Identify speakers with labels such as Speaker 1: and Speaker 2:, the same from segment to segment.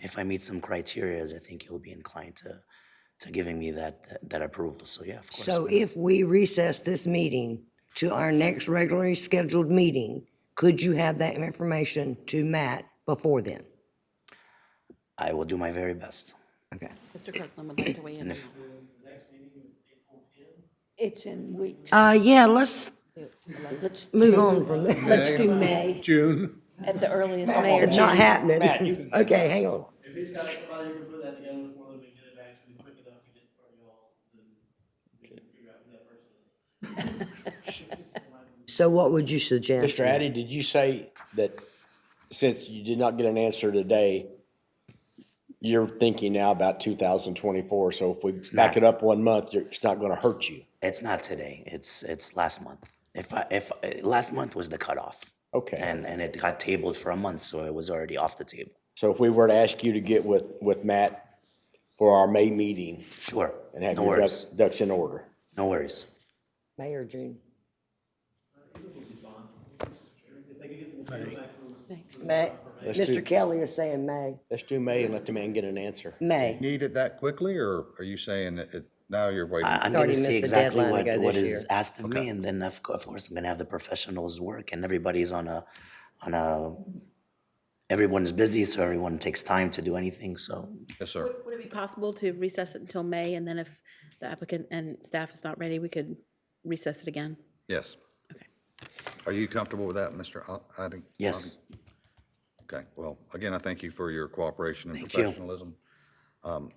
Speaker 1: If I meet some criterias, I think you'll be inclined to, to giving me that, that- that approval. So yeah, of course.
Speaker 2: So
Speaker 1: why not?
Speaker 2: if we recess this meeting to our next regularly scheduled meeting, could you have that information to Matt before then?
Speaker 1: I will do my very best.
Speaker 2: Okay.
Speaker 3: Mr. Kirkland would like to weigh in.
Speaker 1: And
Speaker 3: on
Speaker 1: if,
Speaker 4: It's in weeks.
Speaker 2: Uh, yeah, let's
Speaker 4: Let's,
Speaker 2: move on from there.
Speaker 4: let's do May,
Speaker 5: June.
Speaker 4: at the earliest May or
Speaker 2: It's not
Speaker 4: June.
Speaker 2: happening. Okay, hang on.
Speaker 6: If it's got somebody who can put that together for them and get it back to me quick enough to get it for y'all, then we can figure out who that person is.
Speaker 2: So what would you suggest?
Speaker 7: Mr. Addy, did you say that since you did not get an answer today, you're thinking now about 2024, so if we
Speaker 1: not.
Speaker 7: back it up one month, you're- it's not going to hurt you?
Speaker 1: it's not today, it's, it's last month. If I, if, eh, last month was the cutoff.
Speaker 7: Okay.
Speaker 1: And, and it got tabled for a month, so it was already off the table.
Speaker 7: So if we were to ask you to get with, with Matt for our May meeting
Speaker 1: Sure,
Speaker 7: and have
Speaker 1: no
Speaker 7: your ducks,
Speaker 1: worries,
Speaker 7: ducks in order?
Speaker 1: no worries.
Speaker 2: May or June? May. Mr. Kelly is saying May.
Speaker 7: Let's do May and let the man get an answer.
Speaker 2: May.
Speaker 5: Need it that quickly, or are you saying that it, now you're waiting?
Speaker 1: I- I'm going to
Speaker 2: already
Speaker 1: see
Speaker 2: missed the
Speaker 1: exactly
Speaker 2: deadline to
Speaker 1: what,
Speaker 2: go
Speaker 1: what
Speaker 2: this
Speaker 1: is
Speaker 2: year.
Speaker 1: asked of me, and then of, co- of course I'm going to have the professionals work, and everybody's on a, on a, everyone's busy, so everyone takes time to do anything. So
Speaker 5: Yes, sir.
Speaker 3: Would it be possible to recess it until May, and then if the applicant and staff is not ready, we could recess it again?
Speaker 5: Yes.
Speaker 3: Okay.
Speaker 5: Are you comfortable with that, Mr. O- Odding?
Speaker 1: yes,
Speaker 5: Okay, well, again, I thank you for your cooperation and
Speaker 1: Thank you.
Speaker 5: professionalism. Um,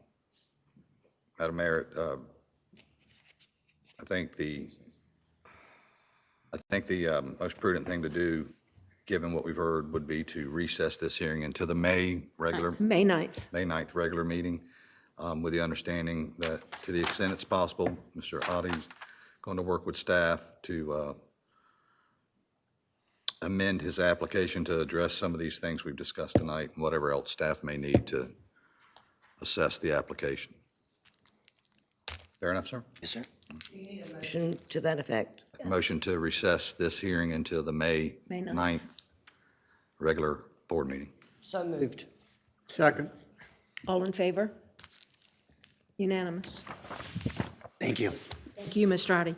Speaker 5: Madam Mayor, uh, I think the, I think the um, most prudent thing to do, given what we've heard, would be to recess this hearing into the May regular,
Speaker 4: May 9th.
Speaker 5: May 9th regular meeting, um, with the understanding that, to the extent it's possible, Mr. Adi's going to work with staff to uh, amend his application to address some of these things we've discussed tonight, and whatever else staff may need to assess the application. Fair enough, sir?
Speaker 1: yes, sir.
Speaker 2: Motion to that effect.
Speaker 5: Motion to recess this hearing until the May
Speaker 3: May 9th.
Speaker 5: 9th regular board meeting.
Speaker 2: So moved.
Speaker 8: Second.
Speaker 3: All in favor?
Speaker 4: Unanimous.
Speaker 1: Thank you.
Speaker 4: Thank you, Ms. Strati.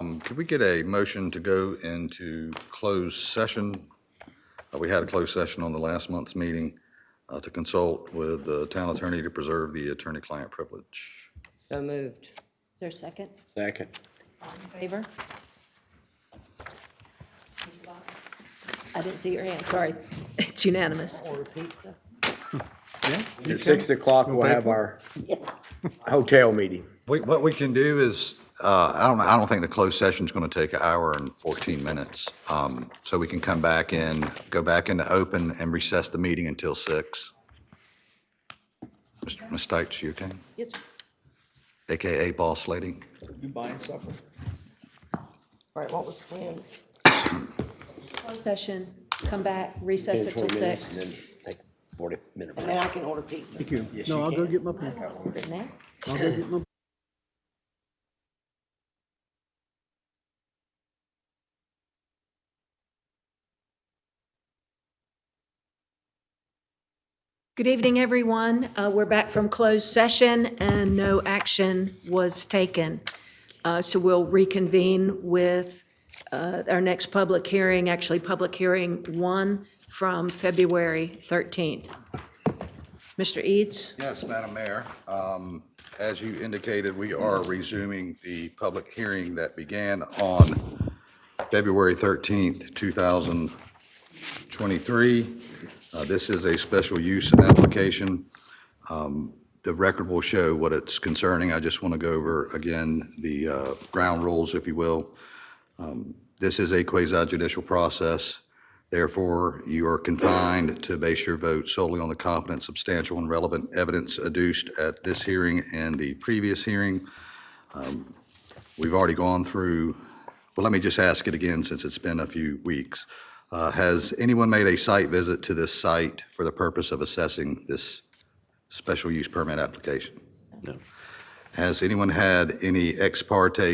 Speaker 5: Um, Could we get a motion to go into closed session? Uh, We had a closed session on the last month's meeting uh, to consult with the town attorney to preserve the attorney-client privilege.
Speaker 2: So moved.
Speaker 3: Is there a second?
Speaker 7: Second.
Speaker 3: In favor?
Speaker 4: I didn't see your hand, sorry. It's unanimous.
Speaker 7: At 6 o'clock, we'll have our hotel meeting.
Speaker 5: We- What we can do is, uh, I don't, know, I don't think the closed session's going to take an hour and 14 minutes. Um, So we can come back in, go back into open and recess the meeting until six. Mr. Ms. Stites, you okay?
Speaker 3: Yes, sir.
Speaker 5: AKA Boss Lady?
Speaker 2: All right, what was the plan?
Speaker 4: Closed Session, come back, recess it till
Speaker 7: 20 minutes,
Speaker 4: six.
Speaker 7: and then take 40 minute break.
Speaker 2: And then I can order pizza.
Speaker 8: No, I'll go get my pen.
Speaker 4: Didn't they?
Speaker 8: I'll go get my
Speaker 4: Good evening, everyone. Uh, We're back from closed session, and no action was taken. Uh, So we'll reconvene with uh, our next public hearing, actually, Public Hearing 1 from February 13th. Mr. Eads?
Speaker 5: Yes, Madam Mayor. Um, As you indicated, we are resuming the public hearing that began on February 13th, 2023. Uh, This is a special use application. Um, The record will show what it's concerning. I just want to go over again the uh, ground rules, if you will. Um, This is a quasi-judicial process. Therefore, you are confined to base your vote solely on the competent, substantial, and relevant evidence adduced at this hearing and the previous hearing. Um, We've already gone through, well, let me just ask it again since it's been a few weeks. Uh, Has anyone made a site visit to this site for the purpose of assessing this special use permit application? Has anyone had any ex parte